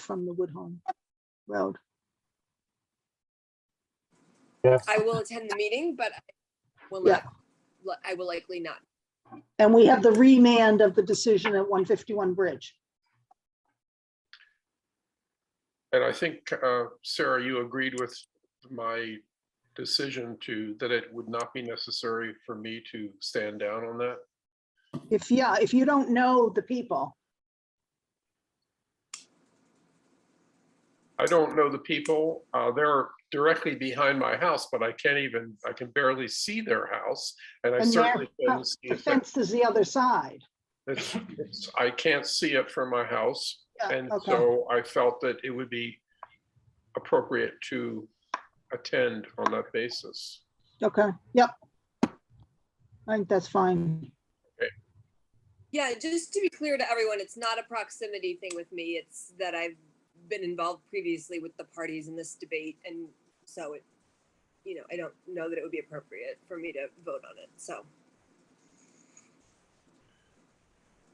from the Woodhome Road. Yes. I will attend the meeting, but I will Yeah. not, li- I will likely not. And we have the remand of the decision at 151 Bridge. And I think, uh, Sarah, you agreed with my decision to, that it would not be necessary for me to stand down on that. If, yeah, if you don't know the people, I don't know the people. Uh, They're directly behind my house, but I can't even, I can barely see their house. And I And their certainly couldn't see the it. fence is the other side. It's- it's- I can't see it from my house. Yeah, And Uh, okay. so I felt that it would be appropriate to attend on that basis. Okay, yep. I think that's fine. Yeah, just to be clear to everyone, it's not a proximity thing with me. It's that I've been involved previously with the parties in this debate and so it, you know, I don't know that it would be appropriate for me to vote on it. So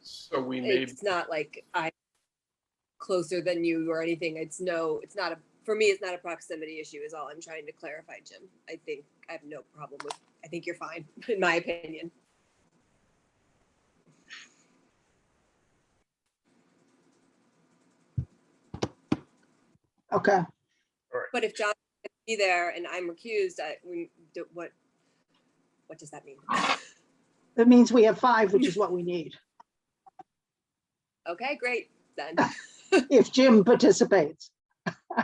So we may, it's not like I'm closer than you or anything. It's no, it's not a, for me, it's not a proximity issue is all I'm trying to clarify, Jim. I think I have no problem with, I think you're fine, in my opinion. Okay, But if John can be there and I'm recused, I, we, do- what, what does that mean? that means we have five, which is what we need, Okay, great, then. if Jim participates.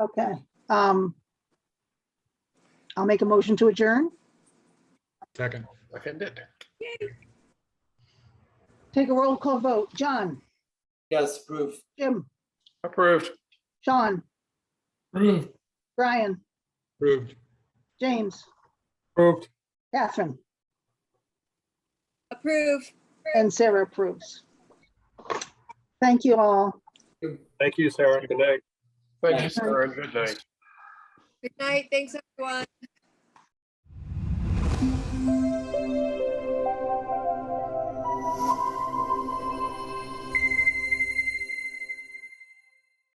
Okay, um. I'll make a motion to adjourn. Second. I can did. Yay. Take a roll call vote. John, Yes, proof. Jim, Approved. Sean, Approved. Brian, Approved. James, Approved. Catherine, Approve. and Sarah approves. Thank you all. Thank you, Sarah. Good night. Thank you, Thanks. Sarah. and Good night. Good night. Thanks, everyone.